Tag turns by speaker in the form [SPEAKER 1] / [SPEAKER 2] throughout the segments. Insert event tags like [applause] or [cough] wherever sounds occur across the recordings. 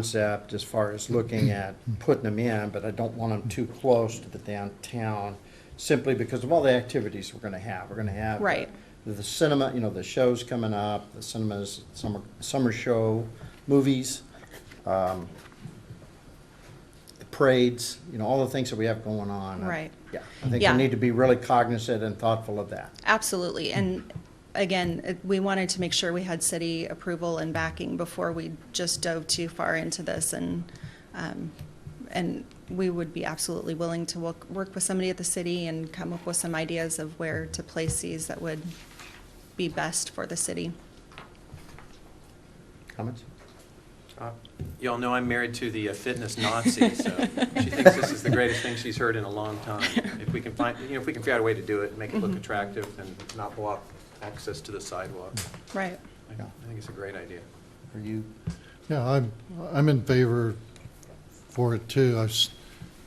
[SPEAKER 1] concept as far as looking at putting them in, but I don't want them too close to the downtown, simply because of all the activities we're gonna have. We're gonna have
[SPEAKER 2] Right.
[SPEAKER 1] the- the cinema, you know, the shows coming up, the cinemas, summer, summer show, movies, um, the parades, you know, all the things that we have going on.
[SPEAKER 2] Right.
[SPEAKER 1] Yeah, I think we
[SPEAKER 2] Yeah.
[SPEAKER 1] need to be really cognizant and thoughtful of that.
[SPEAKER 2] Absolutely, and again, it- we wanted to make sure we had city approval and backing before we just dove too far into this, and, um, and we would be absolutely willing to work, work with somebody at the city and come up with some ideas of where to place these that would be best for the city.
[SPEAKER 1] Comments?
[SPEAKER 3] Uh, Y'all know I'm married to the uh, fitness Nazi, so she thinks this is the greatest thing she's heard in a long time. If we can find, you know, if we can figure out a way to do it, and make it look
[SPEAKER 1] Mm-hmm.
[SPEAKER 3] attractive and not block access to the sidewalk,
[SPEAKER 2] Right.
[SPEAKER 3] I
[SPEAKER 1] Yeah.
[SPEAKER 3] I think it's a great idea.
[SPEAKER 1] Are you,
[SPEAKER 4] Yeah, I'm, I'm in favor for it too. I s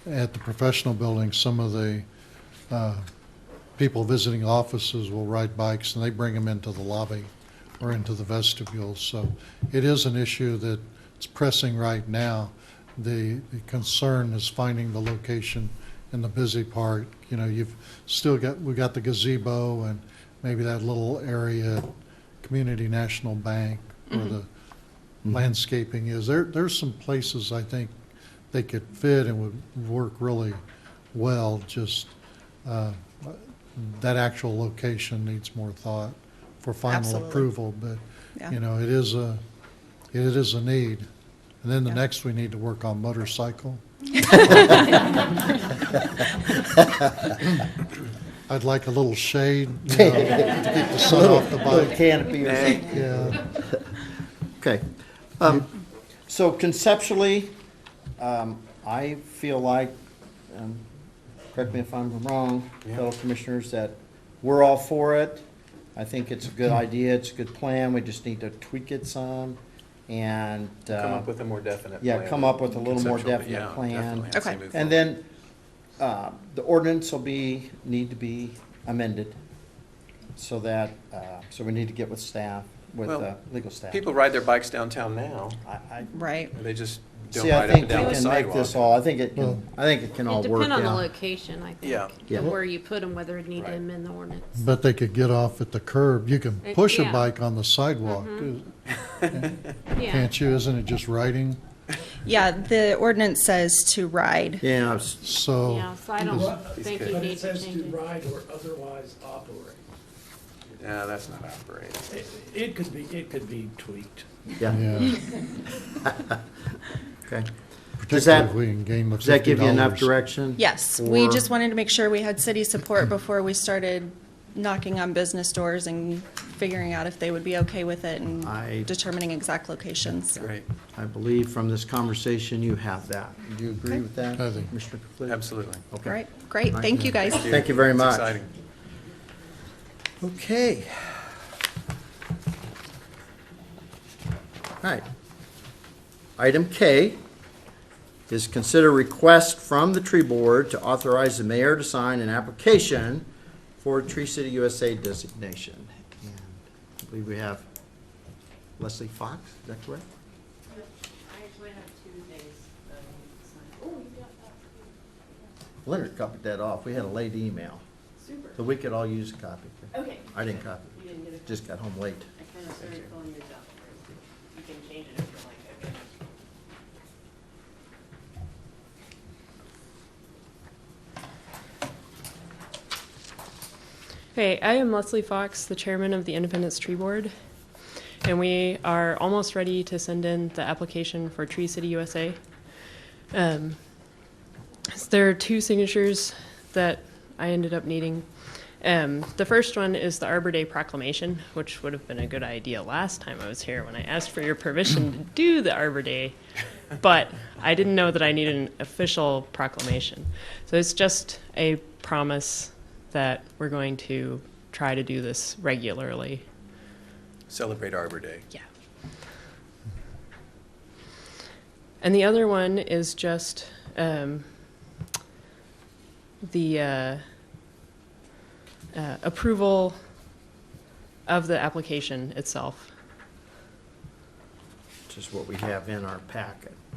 [SPEAKER 4] at the professional building, some of the, uh, people visiting offices will ride bikes and they bring them into the lobby or into the vestibule. So it is an issue that's pressing right now. The, the concern is finding the location in the busy part. You know, you've still got, we've got the gazebo and maybe that little area at Community National Bank where the landscaping is. There, there's some places I think they could fit and would work really well, just uh, that actual location needs more thought for final
[SPEAKER 2] Absolutely.
[SPEAKER 4] approval, but,
[SPEAKER 2] Yeah.
[SPEAKER 4] you know, it is a, it is a need. And then the
[SPEAKER 2] Yeah.
[SPEAKER 4] next, we need to work
[SPEAKER 2] [laughs]
[SPEAKER 4] on motorcycle. I'd like a little shade, you
[SPEAKER 1] [laughs]
[SPEAKER 4] know, to keep the sun off the
[SPEAKER 1] little
[SPEAKER 4] bike,
[SPEAKER 1] canopy or something?
[SPEAKER 4] yeah.
[SPEAKER 1] Okay. Um, So conceptually, um, I feel like, um, correct me if I'm wrong, fellow commissioners, that we're all for it. I think it's a good
[SPEAKER 3] Mm-hmm.
[SPEAKER 1] idea, it's a good plan, we just need to tweak it some and. uh,
[SPEAKER 3] Come up with a more definite
[SPEAKER 1] yeah,
[SPEAKER 3] plan.
[SPEAKER 1] come up with a little more
[SPEAKER 3] Conceptual,
[SPEAKER 1] definite
[SPEAKER 3] yeah,
[SPEAKER 1] plan.
[SPEAKER 3] definitely, I'd say
[SPEAKER 2] Okay.
[SPEAKER 3] move
[SPEAKER 1] And
[SPEAKER 3] forward.
[SPEAKER 1] then, uh, the ordinance will be, need to be amended so that, uh, so we need to get with staff, with
[SPEAKER 3] Well,
[SPEAKER 1] uh, legal staff.
[SPEAKER 3] People ride their bikes downtown now,
[SPEAKER 1] I, I,
[SPEAKER 2] Right.
[SPEAKER 3] and they just don't
[SPEAKER 1] see, I
[SPEAKER 3] ride up
[SPEAKER 1] think
[SPEAKER 3] and
[SPEAKER 1] we
[SPEAKER 3] down the
[SPEAKER 1] can make this
[SPEAKER 3] sidewalk.
[SPEAKER 1] all, I think it can,
[SPEAKER 4] Hmm.
[SPEAKER 1] I think it can all
[SPEAKER 5] It
[SPEAKER 1] work
[SPEAKER 5] depend on the
[SPEAKER 1] out.
[SPEAKER 5] location, I think.
[SPEAKER 3] Yeah.
[SPEAKER 1] Yeah.
[SPEAKER 5] and Where you put them, whether it need to
[SPEAKER 3] Right.
[SPEAKER 5] amend the ordinance.
[SPEAKER 4] But they could get off at the curb. You can
[SPEAKER 5] Eh,
[SPEAKER 4] push a
[SPEAKER 5] yeah. Mm-hmm.
[SPEAKER 4] bike on the sidewalk, uh,
[SPEAKER 1] Mm-hmm.
[SPEAKER 5] Yeah,
[SPEAKER 4] can't you? Isn't it just riding?
[SPEAKER 2] Yeah, the ordinance says to ride.
[SPEAKER 1] Yeah, I was-
[SPEAKER 4] So.
[SPEAKER 5] yeah, so I don't
[SPEAKER 3] These
[SPEAKER 5] think
[SPEAKER 3] kids.
[SPEAKER 5] you
[SPEAKER 6] But
[SPEAKER 5] need
[SPEAKER 6] it
[SPEAKER 5] to
[SPEAKER 6] says to
[SPEAKER 5] change it.
[SPEAKER 6] ride or otherwise operate.
[SPEAKER 3] Yeah, that's not operating.
[SPEAKER 6] It- It could be, it could be tweaked.
[SPEAKER 1] yeah,
[SPEAKER 4] Yeah,
[SPEAKER 1] okay. Does
[SPEAKER 4] particularly
[SPEAKER 1] that,
[SPEAKER 4] if we can gain the
[SPEAKER 1] does that give you enough
[SPEAKER 4] $50.
[SPEAKER 1] direction?
[SPEAKER 2] Yes, we
[SPEAKER 1] Or-
[SPEAKER 2] just wanted to make sure we had city support before we started knocking on business doors and figuring out if they would be okay with it
[SPEAKER 1] I-
[SPEAKER 2] and determining exact locations.
[SPEAKER 3] Great,
[SPEAKER 1] I believe from this conversation, you have that. Do you agree with that,
[SPEAKER 4] I think-
[SPEAKER 1] Commissioner Conflitti?
[SPEAKER 3] absolutely.
[SPEAKER 1] Okay.
[SPEAKER 2] All right, great, thank you guys.
[SPEAKER 1] Thank you very
[SPEAKER 3] It's
[SPEAKER 1] much.
[SPEAKER 3] exciting.
[SPEAKER 1] Okay. All right. Item K is consider request from the tree board to authorize the mayor to sign an application for Tree City USA designation. And I believe we have Leslie Fox, is that correct?
[SPEAKER 7] I actually have two things that I need to sign.
[SPEAKER 1] Leonard copied that off. We had a late email,
[SPEAKER 7] Super.
[SPEAKER 1] so we could all use a copy.
[SPEAKER 7] Okay.
[SPEAKER 1] I didn't copy.
[SPEAKER 7] You didn't get a.
[SPEAKER 1] Just got home late.
[SPEAKER 7] I kind of started filling yours out. You can change it if you like, okay?
[SPEAKER 8] Hey, I am Leslie Fox, the chairman of the Independence Tree Board, and we are almost ready to send in the application for Tree City USA. Um, so there are two signatures that I ended up needing. Um, the first one is the Arbor Day proclamation, which would have been a good idea last time I was here when I asked for your permission to do the Arbor Day, but I didn't know that I needed an official proclamation. So it's just a promise that we're going to try to do this regularly.
[SPEAKER 3] Celebrate Arbor Day.
[SPEAKER 8] Yeah. And the other one is just um, the uh, uh, approval of the application itself.
[SPEAKER 1] which is what we have in our packet.